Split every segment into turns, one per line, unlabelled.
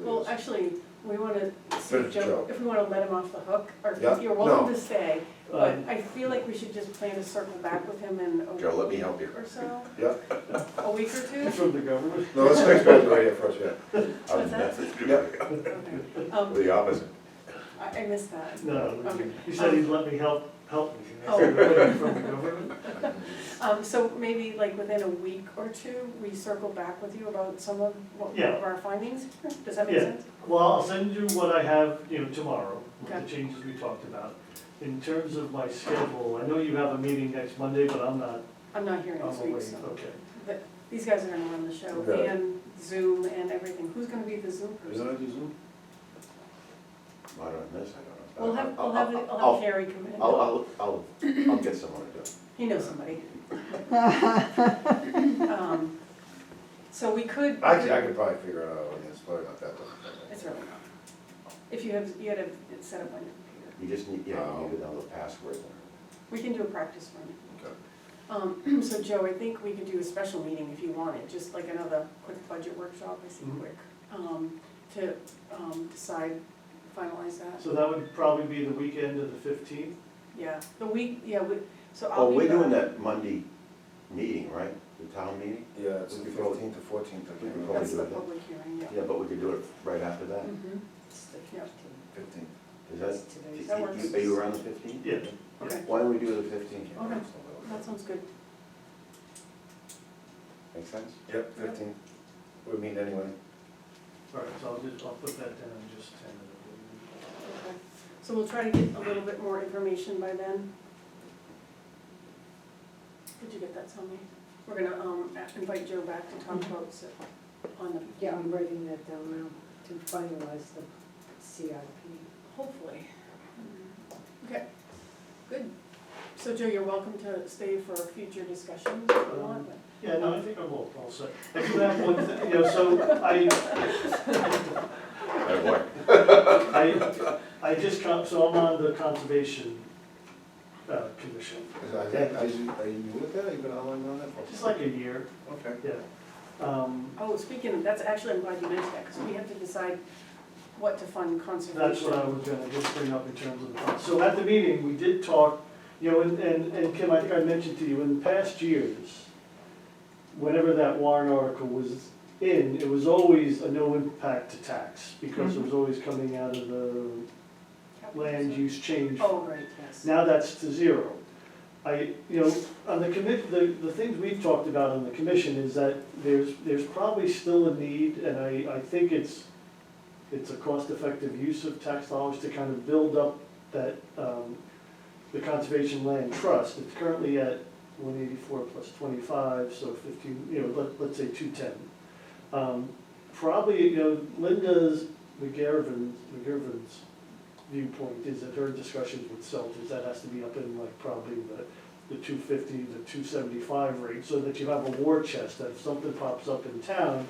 Well, actually, we wanna, see
But
if
it's
Joe,
Joe.
if we wanna let him off the hook, or
Yeah,
if you're welcome
no.
to stay, but
Um,
I feel like we should just plan to circle back with him in a
Joe, let me
week
help you.
or so,
Yeah,
a week or two.
From the government?
no, let's fix back to radio first, yeah.
What's that?
that?
Okay. Um,
The opposite.
I, I missed that.
No,
Okay.
he said he'd let me help, help me. And I
Oh.
said, "Really? From the government?
Um, so maybe like within a week or two, we circle back with you about some of, what,
Yeah.
of our findings, does that make
Yeah.
sense?
Well, I'll send you what I have, you know, tomorrow, with the
Okay.
changes we talked about. In terms of my schedule, I know you have a meeting next Monday, but I'm not,
I'm not here
I'm
next week,
away,
so.
okay.
But these guys are gonna run the show,
Okay.
and Zoom and everything, who's gonna be the Zoom person?
it a Zoom?
I don't know this, I don't know.
We'll
Uh,
have, we'll have, I'll have
I'll,
Harry come in.
I'll, I'll, I'll get someone to do it.
He knows somebody. Um, So we could.
Actually, I could probably figure it out, it's probably not that difficult.
It's really not. If you have, you had it set up on your computer.
You just need, yeah,
Oh.
you need another password.
We can do a practice run.
Okay.
Um, so Joe, I think we could do a special meeting if you wanted, just like another quick budget workshop, I see
Mhm.
quick, um, to, um, decide, finalize that.
So that would probably be the weekend of the fifteenth?
Yeah, the week, yeah, we, so I'll
Oh,
be.
we're doing
back.
that Monday meeting, right? The town meeting?
Yeah, it's
We
the
could probably-
fifteenth to fourteenth, I
we
can't
could
remember.
That's the
doing that.
public hearing, yeah.
Yeah, but we could do it right after that.
Mhm. Yeah.
Fifteenth.
Is that,
That
you- you-
works.
are you around the fifteenth?
Yeah,
Okay,
Why don't we do the fifteenth?
Okay. that sounds good.
Make sense?
Yep, fifteenth, we're meeting anyway.
all right, so I'll just, I'll put that down just tentatively.
Okay, so we'll try to get a little bit more information by then. Did you get that, Tommy? We're gonna, um, invite Joe back to talk about it on the,
Yeah, I'm writing that down now to finalize the CIP.
hopefully. Okay, good. So Joe, you're welcome to stay for future discussions if you want, but.
Yeah, no, I think I'm all, all set. I do have one, thing, you know, so I,
That work.
I, I just, con- so I'm on the conservation uh, commission,
Is- Are you, are you- are you new with that, you've been online on that for?
just like a year,
Okay.
yeah. Um,
Oh, speaking of, that's actually, I'm glad you mentioned that, because we have to decide what to fund conservation.
That's what I was gonna just bring up in terms of, the con- so at the meeting, we did talk, you know, and, and and Kim, I think I mentioned to you, in the past years, whenever that warrant article was in, it was always a no impact to tax, because it was always coming out of the
Capital
land
reserve.
use change.
Oh, right, yes.
Now that's to zero. I, you know, on the commit, the, the things we've talked about on the commission is that there's, there's probably still a need, and I, I think it's, it's a cost-effective use of tax dollars to kind of build up that, um, the conservation land trust. It's currently at one eighty-four plus twenty-five, so fifteen, you know, let, let's say two-ten. Um, probably, you know, Linda's McGarvin's, McGarvin's viewpoint is that her discussions with Selt is that has to be up in like probably the, the two fifty, the two seventy-five rate, so that you have a war chest, that if something pops up in town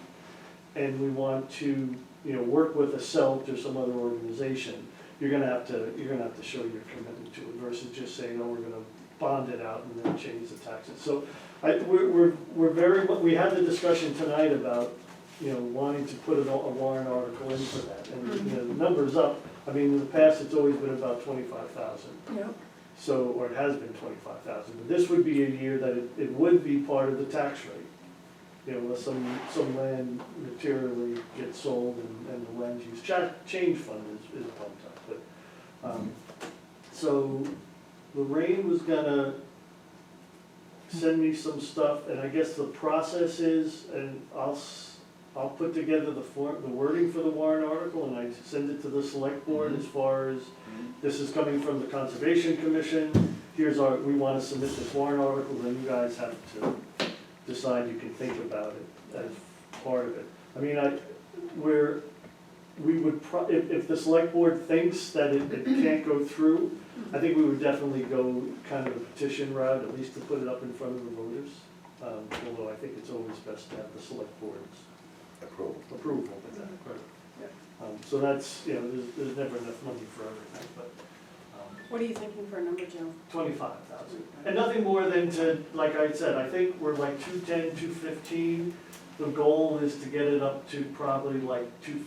and we want to, you know, work with a Selt or some other organization, you're gonna have to, you're gonna have to show your commitment to it versus just saying, oh, we're gonna bond it out and then change the taxes. So I, we're, we're, we're very, we had the discussion tonight about, you know, wanting to put a, a warrant article in for that. And, you know, the number's up, I mean, in the past, it's always been about twenty-five thousand,
Yep.
so, or it has been twenty-five thousand, but this would be a year that it, it would be part of the tax rate. You know, unless some, some land materially gets sold and, and the land use cha- change fund is, is pumped up, but, um, so Lorraine was gonna send me some stuff, and I guess the process is, and I'll, s- I'll put together the form, the wording for the warrant article, and I send it to the select board as far as, this is coming from the Conservation Commission, here's our, we wanna submit this warrant article, then you guys have to decide, you can think about it as part of it. I mean, I, we're, we would pro, if, if the select board thinks that it, it can't go through,
Mm-hmm.
I think we would definitely go kind of the petition route, at least to put it up in front of the voters. Um, although I think it's always best to have the select board's
Approved.
approval of that. Um, so that's, you know, there's, there's never enough money for everything, but, um,
What are you thinking for a number, Joe?
twenty-five thousand. And nothing more than to, like I said, I think we're like two-ten, two-fifteen. The goal is to get it up to probably like two-fifty.